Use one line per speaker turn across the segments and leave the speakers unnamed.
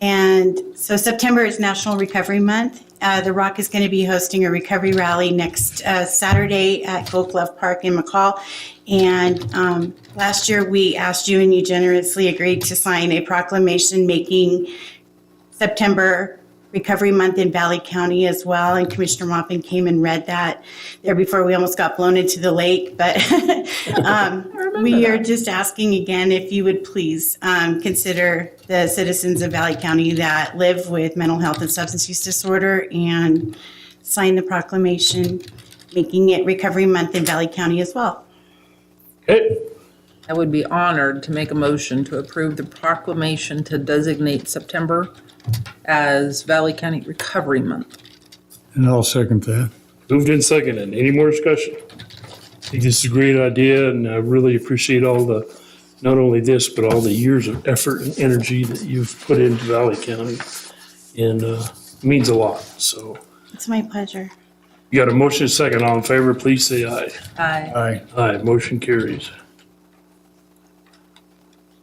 And so September is National Recovery Month. Uh, the Rock is going to be hosting a recovery rally next uh, Saturday at Gold Glove Park in McCall. And um, last year we asked you, and you generously agreed to sign a proclamation making September Recovery Month in Valley County as well. And Commissioner Moffin came and read that there before we almost got blown into the lake. But um, we are just asking again if you would please um, consider the citizens of Valley County that live with mental health and substance use disorder and sign the proclamation making it Recovery Month in Valley County as well.
Okay,
I would be honored to make a motion to approve the proclamation to designate September as Valley County Recovery Month.
And I'll second that.
moved in second. And any more discussion? I think this is a great idea and I really appreciate all the, not only this, but all the years of effort and energy that you've put into Valley County. And, uh, means a lot. So
It's my pleasure.
you got a motion and second. All in favor, please say aye.
Aye.
Aye.
Aye, motion carries.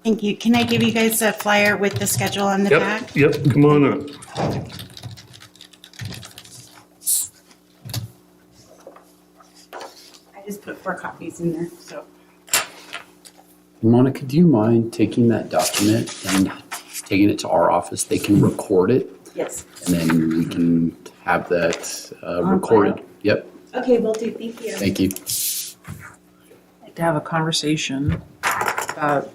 Thank you. Can I give you guys a flyer with the schedule on the back?
Yep, yep, come on up.
I just put four copies in there, so.
Monica, do you mind taking that document and taking it to our office? They can record it
Yes.
and then we can have that uh, recorded. Yep,
Okay, will do. Thank you.
thank you.
To have a conversation about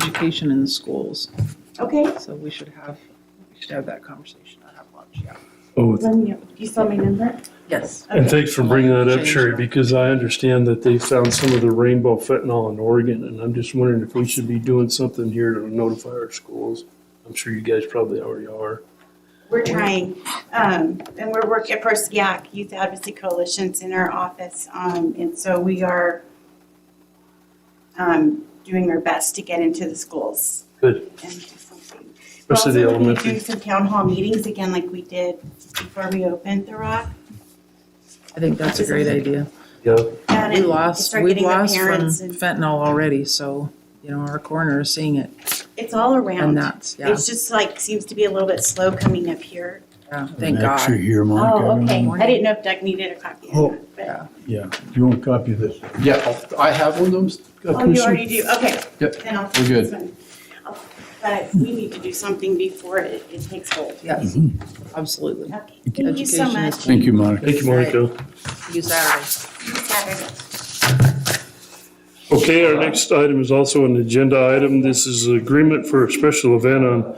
education in the schools.
Okay.
So we should have, we should have that conversation. I have lunch, yeah.
Oh,
um, You saw my number?
Yes.
And thanks for bringing that up,
Change
Sherry,
that.
because I understand that they found some of the rainbow fentanyl in Oregon, and I'm just wondering if we should be doing something here to notify our schools. I'm sure you guys probably already are.
We're trying, um, and we're working for SYAC, Youth Advocacy Coalition's in our office, um, and so we are um, doing our best to get into the schools
Good,
and do something. We're
especially the
also looking at
elementary.
doing some town hall meetings again like we did before we opened The Rock.
I think that's a great idea.
Yeah,
And
We
it-
lost,
start
we
getting the
lost from
parents and-
fentanyl already, so, you know, our corner is seeing it.
It's all
And
around.
that's, yeah,
It's just like, seems to be a little bit slow coming up here.
yeah, thank
Next you
God.
here, Monica.
Oh, okay. I
Morning.
didn't know if Doug needed a copy.
Oh.
or not, but-
Yeah, you want a copy of this?
Yeah, I'll- I have one of those. uh,
Oh, you
Commissioner?
already do, okay.
Yep,
Then I'll
we're
take this one. I'll- But we need to do something before it, it takes hold.
Yes, absolutely.
Okay, thank you so
Education
much.
is
Thank you, Monica.
thank you, Monica.
You Saturday.
Saturday.
Okay, our next item is also an agenda item. This is agreement for a special event on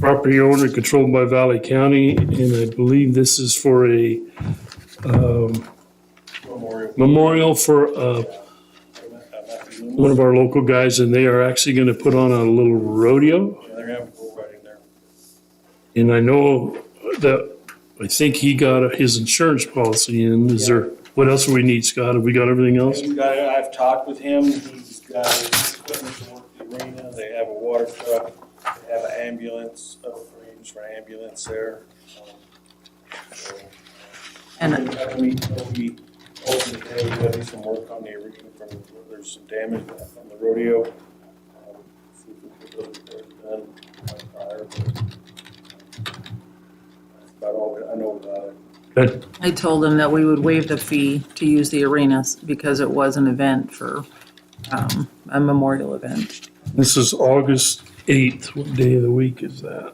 property owner controlled by Valley County, and I believe this is for a um, memorial for uh, one of our local guys, and they are actually going to put on a little rodeo.
Yeah, they're having bull riding there.
And I know that, I think he got his insurance policy in. Is there, what else do we need, Scott? Have we got everything else?
He's got, I've talked with him, he's got his equipment to work the arena, they have a water truck, they have an ambulance, upgrades for ambulance there. Um, so,
And-
we'll have to meet- we'll be open today, we gotta do some work on the arena from, there's some damage from the rodeo. Um, see if we can get those repairs done by fire, but, um, That's about all I know about it.
Good.
I told them that we would waive the fee to use the arenas because it was an event for, um, a memorial event.
This is August 8th. What day of the week is that?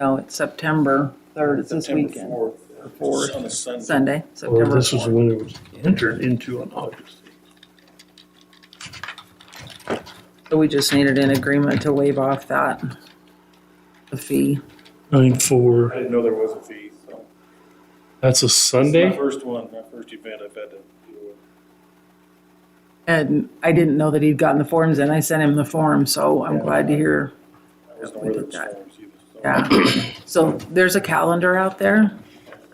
No, it's September third, it's this
September
weekend,
fourth, uh,
fourth.
On a Sunday.
Sunday,
Or
September
this is
fourth.
when it was entered into on August.
So we just needed an agreement to waive off that, the fee.
9/4.
I didn't know there was a fee, so.
That's a
It's my
Sunday?
first one, my first event I've had to do.
And I didn't know that he'd gotten the forms in, I sent him the form, so I'm glad to hear,
I was
Yeah,
not
we
aware there
did
was
that.
forms either, so.
yeah. So there's a calendar out there,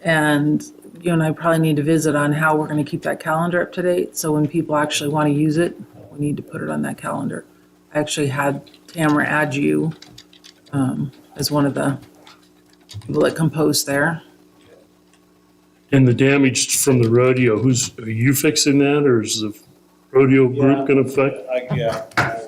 and you and I probably need to visit on how we're gonna keep that calendar up to date, so when people actually wanna use it, we need to put it on that calendar. I actually had Tamara add you, um, as one of the people that composed there.
And the damage from the rodeo, who's, are you fixing that or is the rodeo
Yeah.
group going to affect?
I, yeah, I